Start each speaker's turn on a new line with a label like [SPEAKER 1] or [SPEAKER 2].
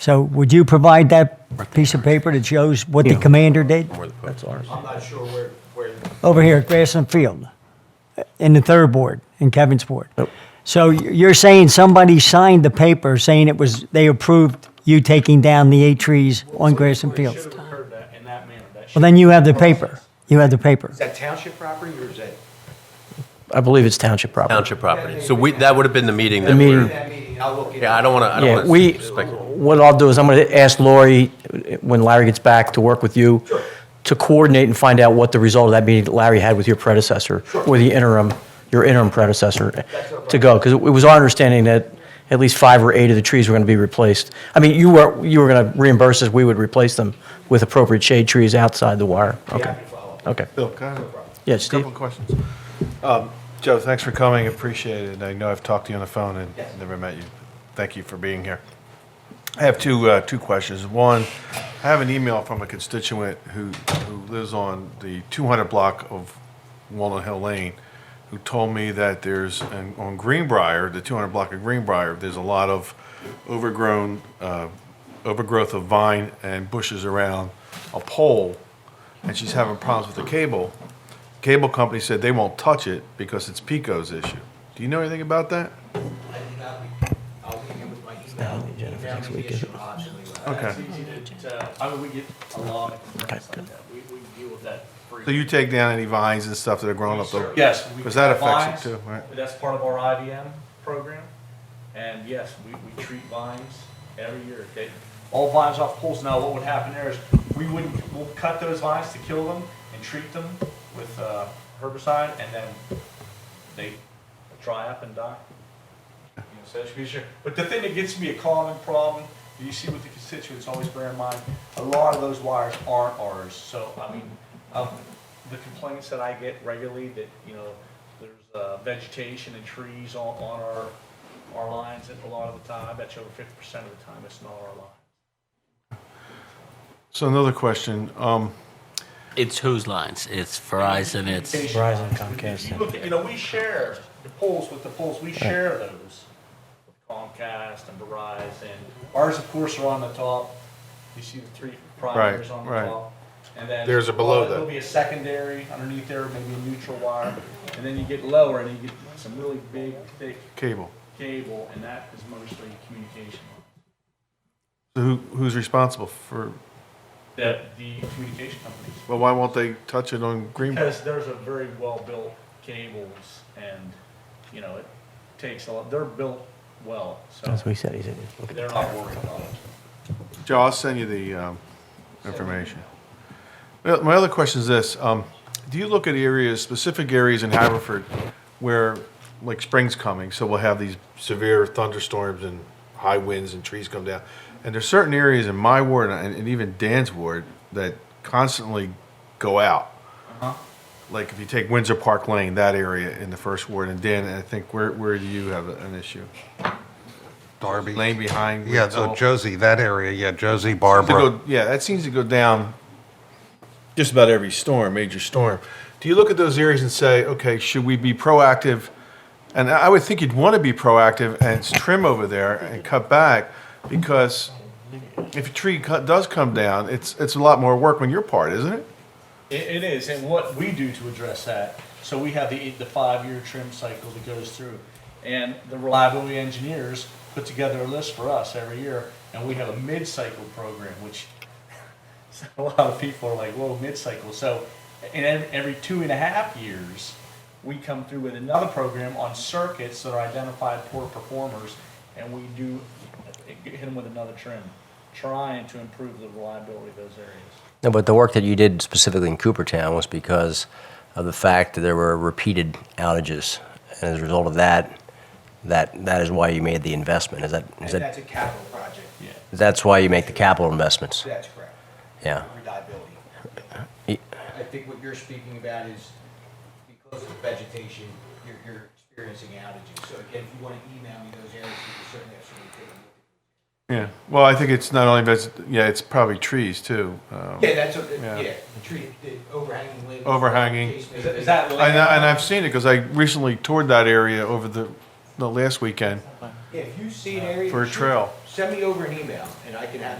[SPEAKER 1] So would you provide that piece of paper that shows what the
[SPEAKER 2] Yeah.
[SPEAKER 1] commander did?
[SPEAKER 2] That's ours.
[SPEAKER 3] I'm not sure where, where,
[SPEAKER 1] Over here at Grassland Field, uh, in the third board, in Kevin's board. So you're saying somebody signed the paper saying it was, they approved you taking down the eight trees on Grassland
[SPEAKER 3] it
[SPEAKER 1] Field?
[SPEAKER 3] should have occurred that, in that manner. That
[SPEAKER 1] Well,
[SPEAKER 3] should,
[SPEAKER 1] then you have the paper. You have the paper.
[SPEAKER 3] is that township property or is that?
[SPEAKER 2] I believe it's township property.
[SPEAKER 4] Township property. So we, that would have been the meeting that
[SPEAKER 2] The meeting.
[SPEAKER 4] we're,
[SPEAKER 3] That meeting, I'll look it
[SPEAKER 4] yeah, I
[SPEAKER 3] up.
[SPEAKER 4] don't want to, I don't
[SPEAKER 2] Yeah,
[SPEAKER 4] want to.
[SPEAKER 2] we, what I'll do is I'm going to ask Lori, when Larry gets back to work with you, to coordinate and find out what the result of that meeting that Larry had with your predecessor, or the interim, your interim predecessor, to go. Because it was our understanding that at least five or eight of the trees were going to be replaced. I mean, you were, you were going to reimburse us, we would replace them with appropriate shade trees outside the wire. Okay, okay.
[SPEAKER 5] Bill, can I have a
[SPEAKER 2] Yeah, Steve?
[SPEAKER 5] couple of questions? Um, Joe, thanks for coming, appreciate it. I know I've talked to you on the phone and never met you. Thank you for being here. I have two, uh, two questions. One, I have an email from a constituent who, who lives on the 200 block of Walnut Hill Lane, who told me that there's, an- on Greenbrier, the 200 block of Greenbrier, there's a lot of overgrown, uh, overgrowth of vine and bushes around a pole, and she's having problems with the cable. Cable company said they won't touch it because it's Pico's issue. Do you know anything about that?
[SPEAKER 3] I'll leave you with my email. Email me the issue, I'll actually-
[SPEAKER 5] Okay.
[SPEAKER 6] It's easy to- to, I mean, we get a lot of complaints like that. We, we deal with that
[SPEAKER 5] So
[SPEAKER 6] frequently.
[SPEAKER 5] you take down any vines and stuff that are growing up though?
[SPEAKER 6] Yes. we
[SPEAKER 5] Because that
[SPEAKER 6] cut
[SPEAKER 5] affects it
[SPEAKER 6] vines.
[SPEAKER 5] too, right?
[SPEAKER 6] That's part of our IVM program. And yes, we, we treat vines every year, okay? All vines off poles. Now, what would happen there is we wouldn't, we'll cut those vines to kill them and treat them with uh, herbicide and then they dry up and die. You know, so that should be sure. But the thing that gets me a common problem, that you see with the constituents, always bear in mind, a lot of those wires aren't ours. So, I mean, um, the complaints that I get regularly that, you know, there's uh, vegetation and trees on, on our, our lines and a lot of the time, I bet you over fifty percent of the time, it's not our line.
[SPEAKER 5] So another question, um,
[SPEAKER 7] It's whose lines? It's Verizon, it's,
[SPEAKER 2] Verizon, Comcast,
[SPEAKER 6] You look at- You know, we share the poles with the poles, we share those with Comcast and Verizon. Ours, of course, are on the top. You see the three primaries
[SPEAKER 5] Right,
[SPEAKER 6] on the
[SPEAKER 5] right.
[SPEAKER 6] top. And then.
[SPEAKER 5] There's a below
[SPEAKER 6] well,
[SPEAKER 5] that.
[SPEAKER 6] There'll be a secondary underneath there, maybe a neutral wire. And then you get lower and you get some really big, thick
[SPEAKER 5] cable.
[SPEAKER 6] cable, and that is mostly communication.
[SPEAKER 5] So who, who's responsible for,
[SPEAKER 6] The, the communication companies.
[SPEAKER 5] well, why won't they touch it on Greenbrier?
[SPEAKER 6] Because there's a very well-built cables and, you know, it takes a lot, they're built well, so
[SPEAKER 2] That's what he said, he said, look at
[SPEAKER 6] they're not worried about it.
[SPEAKER 5] Joe, I'll send you the, um, information. Well, My other question is this, um, do you look at areas, specific areas in Haverford where, like, spring's coming, so we'll have these severe thunderstorms and high winds and trees come down? And there's certain areas in my ward and, and even Dan's ward that constantly go out.
[SPEAKER 8] Uh-huh.
[SPEAKER 5] Like if you take Windsor Park Lane, that area in the first ward, and Dan, I think, where, where do you have an issue?
[SPEAKER 8] Darby.
[SPEAKER 5] Lane behind.
[SPEAKER 8] Yeah, so
[SPEAKER 5] Windsor?
[SPEAKER 8] Josie, that area, yeah, Josie,
[SPEAKER 5] to
[SPEAKER 8] Barbara.
[SPEAKER 5] go- yeah, that seems to go down just about every storm, major storm. Do you look at those areas and say, okay, should we be proactive? And I I would think you'd want to be proactive and trim over there and cut back because if a tree cut, does come down, it's it's a lot more work on your part, isn't it?
[SPEAKER 6] It, it is, and what we do to address that, so we have the, the five-year trim cycle that goes through. And the reliability engineers put together a list for us every year, and we have a mid-cycle program, which a lot of people are like, whoa, mid-cycle. So, and ev- every two and a half years, we come through with another program on circuits that are identified poor performers, and we do hit them with another trim, trying to improve the reliability of those areas.
[SPEAKER 9] No, but the work that you did specifically in Coopertown was because of the fact that there were repeated outages. And as a result of that, that, that is why you made the investment. Is that, is
[SPEAKER 3] And
[SPEAKER 9] that,
[SPEAKER 3] that's a capital project,
[SPEAKER 9] that's why you make the capital investments?
[SPEAKER 3] that's correct,
[SPEAKER 9] Yeah.
[SPEAKER 3] reliability.
[SPEAKER 9] Y-
[SPEAKER 3] I think what you're speaking about is because of vegetation, you're, you're experiencing outages. So again, if you want to email me those areas, you can certainly have somebody take a look.
[SPEAKER 5] Yeah. Well, I think it's not only veg- yeah, it's probably trees too. Um,
[SPEAKER 3] Yeah, that's, what-
[SPEAKER 5] Yeah.
[SPEAKER 3] yeah, tree, the overhanging limbs.
[SPEAKER 5] Overhanging.
[SPEAKER 3] Case may
[SPEAKER 6] Is that- is
[SPEAKER 3] be.
[SPEAKER 6] that
[SPEAKER 5] and, I, and I've seen it because I recently toured that area over the the last weekend
[SPEAKER 3] Yeah, If you see an area.
[SPEAKER 5] Uh, for a
[SPEAKER 3] shoot-
[SPEAKER 5] trail.
[SPEAKER 3] Send me over an email and I can have